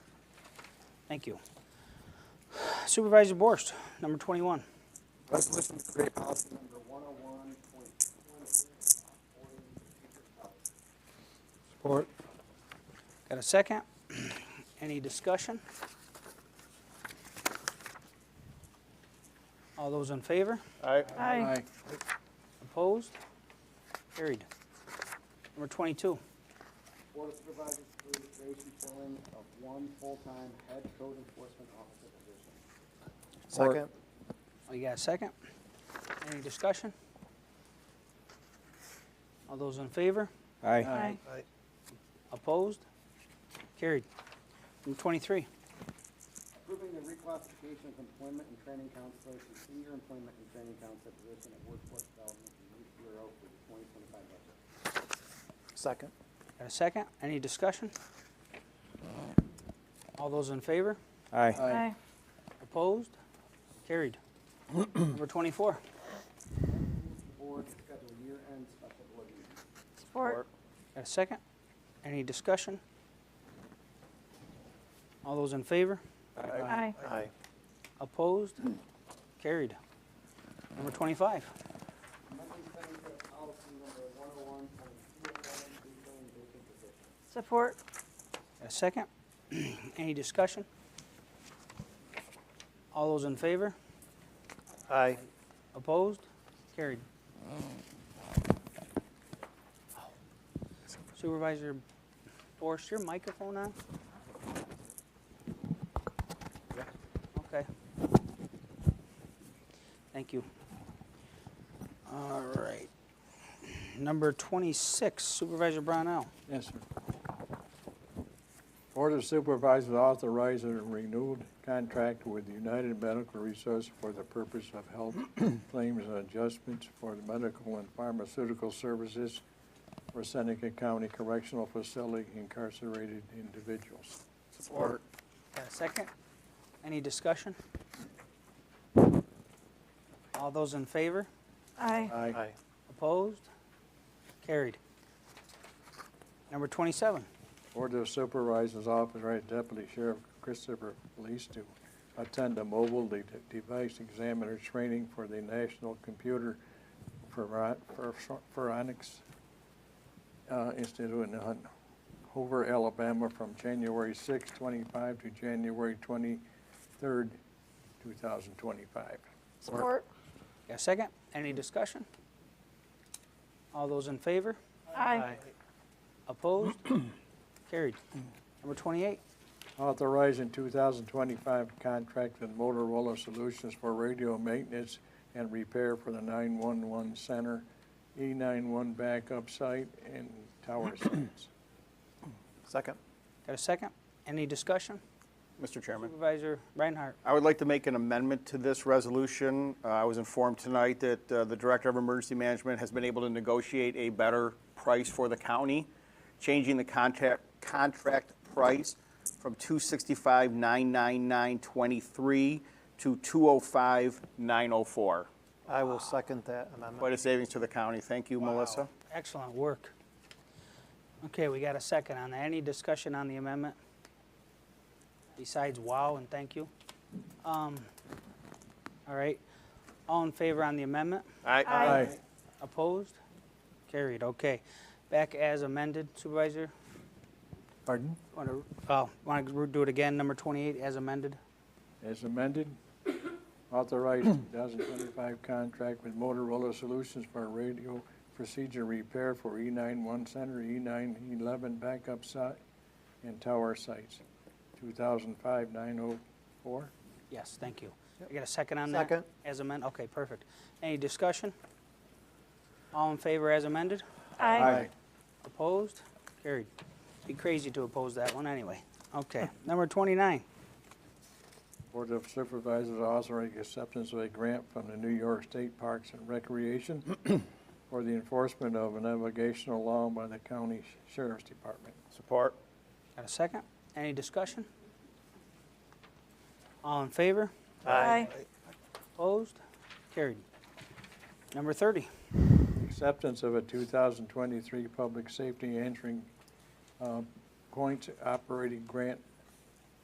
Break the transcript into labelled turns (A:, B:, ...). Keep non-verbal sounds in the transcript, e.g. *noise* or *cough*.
A: Thank you. Supervisor Borst, number 21.
B: Resolution to create policy number one oh one point two one six, according to teacher policy.
C: Support.
A: Got a second? *clears throat* Any discussion? All those in favor?
D: Aye.
E: Aye.
A: Opposed? Carried. Number 22.
B: Board of Supervisors approve creation filling of one full-time head code enforcement officer position.
E: Second.
A: Oh, You got a second? Any discussion? All those in favor?
C: Aye.
E: Aye.
A: Opposed? Carried. Number 23.
B: Approving the reclassification of employment and training counselor to senior employment and training counselor position at Workforce Development and Youth Bureau for the twenty twenty-five budget.
E: Second.
A: Got a second? Any discussion? All those in favor?
C: Aye.
E: Aye.
A: Opposed? Carried. *clears throat* Number 24.
B: The board to schedule year-end special board meeting.
E: Support.
A: Got a second? Any discussion? All those in favor?
E: Aye. Aye.
A: Opposed? Carried. Number 25.
B: Amending Senate policy number one oh one point two eleven, refilling vacant position.
F: Support.
A: Got a second? *clears throat* Any discussion? All those in favor?
D: Aye.
A: Opposed? Carried. Supervisor Borst, your microphone on? Okay. Thank you. All right. Number 26, Supervisor Brownell.
G: Yes, sir. Board of Supervisors authorize a renewed contract with United Medical Resource for the purpose of health claims and adjustments for the medical and pharmaceutical services for Seneca County Correctional Facility incarcerated individuals.
E: Support.
A: Got a second? Any discussion? All those in favor?
F: Aye.
G: Aye.
A: Opposed? Carried. Number 27.
G: Board of Supervisors authorize Deputy Sheriff Christopher Police to attend a mobile de- device examiner training for the National Computer Foren- For Forensics uh, Institute in Hun- Hoover, Alabama, from January 6, 25 to January 23, 2025.
F: Support.
A: Got a second? Any discussion? All those in favor?
F: Aye.
A: Opposed? Carried. Number 28.
G: authorizing 2025 contract with Motorola Solutions for radio maintenance and repair for the 911 center, E91 backup site, and tower sites.
E: Second.
A: Got a second? Any discussion?
D: Mr. Chairman,
A: Supervisor Reinhardt.
D: I would like to make an amendment to this resolution. Uh, I was informed tonight that uh, the Director of Emergency Management has been able to negotiate a better price for the county, changing the contract, contract price from 265,999.23 to 205,904.
E: I will second that amendment.
D: Quite a savings to the county. Thank you, Melissa.
A: Excellent work. Okay, we got a second on that. Any discussion on the amendment? Besides wow and thank you? Um, All right. All in favor on the amendment?
F: Aye.
A: Opposed? Carried, okay. Back as amended, Supervisor?
G: Pardon?
A: Want to, oh, want to do it again, number 28 as amended?
G: As amended, authorized 2025 contract with Motorola Solutions for radio procedure repair for E91 center, E911 backup site, and tower sites, 2005-904.
A: Yes, thank you. I got a second on that?
E: Second.
A: As amended, okay, perfect. Any discussion? All in favor as amended?
F: Aye.
A: Opposed? Carried. Be crazy to oppose that one anyway. Okay, number 29.
G: Board of Supervisors authorizing acceptance of a grant from the New York State Parks and Recreation for the enforcement of a navigational law by the county sheriff's department.
D: Support.
A: Got a second? Any discussion? All in favor?
F: Aye.
A: Opposed? Carried. Number 30.
G: Acceptance of a 2023 Public Safety Entering uh, Points Operating Grant